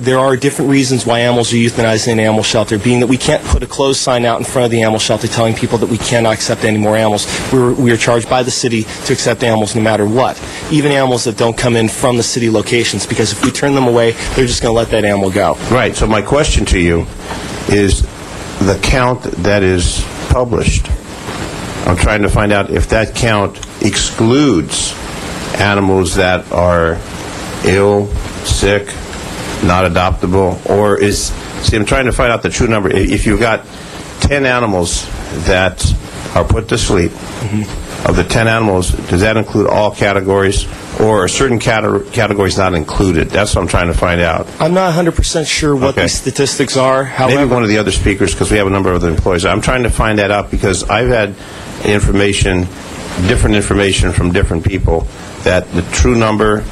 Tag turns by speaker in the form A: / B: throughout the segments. A: there are different reasons why animals are euthanized in an animal shelter, being that we can't put a closed sign out in front of the animal shelter telling people that we cannot accept any more animals. We were, we are charged by the city to accept animals no matter what, even animals that don't come in from the city locations, because if we turn them away, they're just going to let that animal go.
B: Right, so my question to you is the count that is published, I'm trying to find out if that count excludes animals that are ill, sick, not adoptable, or is, see, I'm trying to find out the true number. I- If you've got 10 animals that are put to sleep, of the 10 animals, does that include all categories, or are certain cate- categories not included? That's what I'm trying to find out.
A: I'm not 100% sure what
B: Okay.
A: these statistics are. However,
B: Maybe one of the other speakers, because we have a number of other employees. I'm trying to find that out because I've had information, different information from different people, that the true number,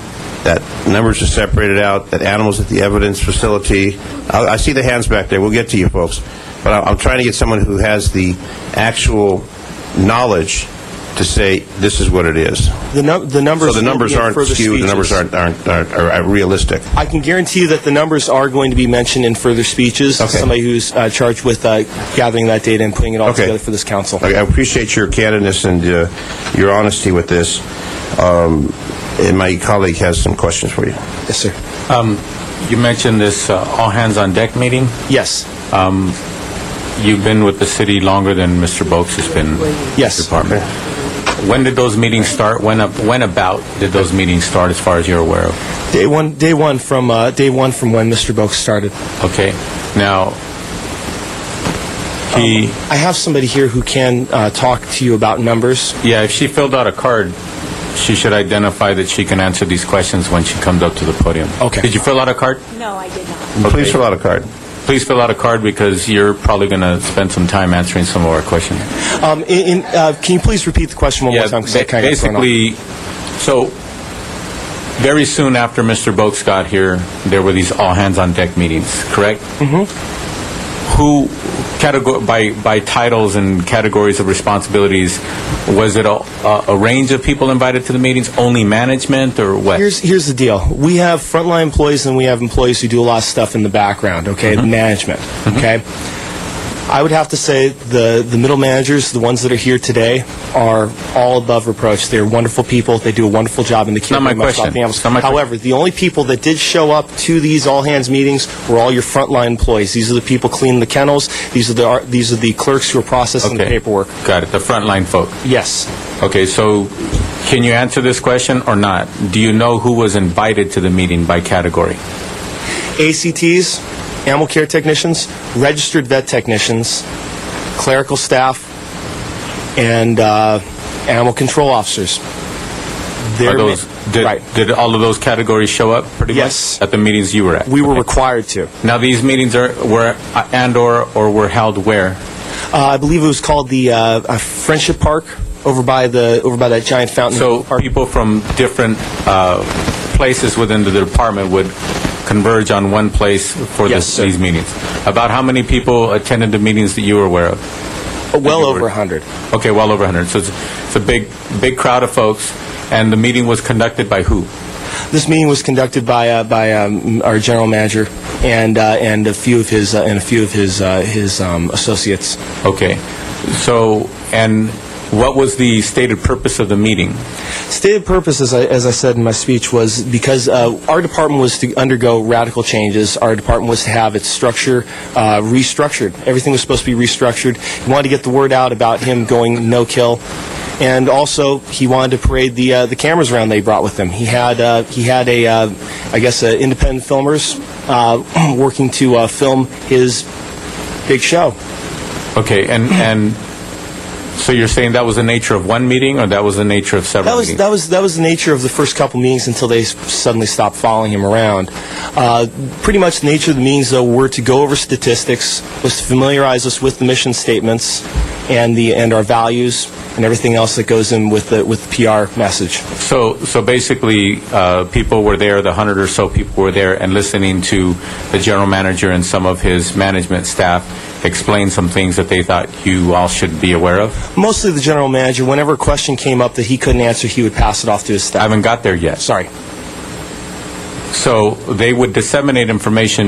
B: that numbers are separated out, that animals at the evidence facility, I I see the hands back there, we'll get to you folks, but I- I'm trying to get someone who has the actual knowledge to say, this is what it is.
A: the, num- the numbers
B: So the
A: will
B: numbers
A: be in
B: aren't
A: further
B: skewed, the numbers
A: speeches.
B: aren't aren't aren't- are realistic.
A: I can guarantee that the numbers are going to be mentioned in further speeches.
B: Okay.
A: Somebody who's uh, charged with uh, gathering that data and putting it all
B: Okay.
A: together for this council.
B: I I appreciate your candidness and uh, your honesty with this. Um, And my colleague has some questions for you.
A: Yes, sir.
C: Um, You mentioned this uh, all-hands-on-deck meeting.
A: Yes.
C: Um, You've been with the city longer than Mr. Boakes has been in
A: Yes.
C: the department. When did those meetings start? When ab- When about did those meetings start, as far as you're aware of?
A: Day one, day one from uh, day one from when Mr. Boak started.
C: Okay, now, he,
A: I have somebody here who can uh, talk to you about numbers.
C: yeah, if she filled out a card, she should identify that she can answer these questions when she comes up to the podium.
A: Okay.
C: Did you fill out a card?
D: No, I did not.
B: Please fill out a card.
C: Please fill out a card, because you're probably going to spend some time answering some of our questions.
A: Um, in, in, uh, can you please repeat the question one more time? 'cause I
C: ba-
A: kinda got thrown off.
C: basically, so very soon after Mr. Boakes got here, there were these all-hands-on-deck meetings, correct? Mm-hmm. Who, categor- by, by titles and categories of responsibilities, was it a, a, a range of people invited to the meetings, only management, or what?
A: Here's, here's the deal. We have frontline employees and we have employees who do a lot of stuff in the background, okay?
C: Mm-hmm.
A: Management, okay? I would have to say the, the middle managers, the ones that are here today, are all above reproach. They're wonderful people. They do a wonderful job in the care
C: Not my
A: very much about
C: question.
A: the animals.
C: Not my que-
A: However, the only people that did show up to these all hands meetings were all your frontline employees. These are the people cleaning the kennels. These are the these are the clerks who are processing the
C: Okay.
A: paperwork.
C: Got it, the frontline folk.
A: Yes.
C: Okay, so can you answer this question or not? Do you know who was invited to the meeting by category?
A: ACTs, animal care technicians, registered vet technicians, clerical staff, and uh, animal control officers. They're
C: Are those, did,
A: right.
C: did all of those categories show up pretty much?
A: Yes.
C: At the meetings you were at?
A: We were
C: Okay.
A: required to.
C: Now, these meetings are, were, uh, and/or, or were held where?
A: Uh, I believe it was called the uh, uh, Friendship Park over by the over by that giant fountain.
C: So
A: park.
C: people from different uh, places within the department would converge on one place for
A: Yes,
C: this-
A: sir.
C: these meetings? About how many people attended the meetings that you were aware of?
A: well
C: you
A: over
C: were-
A: a hundred.
C: Okay, well over 100. So it's, it's a big, big crowd of folks, and the meeting was conducted by who?
A: This meeting was conducted by uh, by um, our general manager and uh, and a few of his uh, and a few of his uh, his um, associates.
C: Okay, so, and what was the stated purpose of the meeting?
A: Stated purpose, as I, as I said in my speech, was because uh, our department was to undergo radical changes. Our department was to have its structure uh, restructured. Everything was supposed to be restructured. He wanted to get the word out about him going no kill, and also he wanted to parade the uh, the cameras around they brought with him. He had uh, he had a uh, I guess uh, independent filmers uh, working to uh, film his big show.
C: Okay, and, and, so you're saying that was the nature of one meeting, or that was the nature of
A: That
C: several
A: was
C: meetings?
A: that was that was the nature of the first couple meetings until they s- suddenly stopped following him around. Uh, pretty much the nature of the meetings though were to go over statistics, was to familiarize us with the mission statements and the and our values and everything else that goes in with the with the PR message.
C: So, so basically, uh, people were there, the hundred or so people were there, and listening to the general manager and some of his management staff explain some things that they thought you all should be aware of?
A: Mostly the general manager, whenever a question came up that he couldn't answer, he would pass it off to his
C: I
A: staff.
C: haven't got there yet.
A: Sorry.
C: So they would disseminate information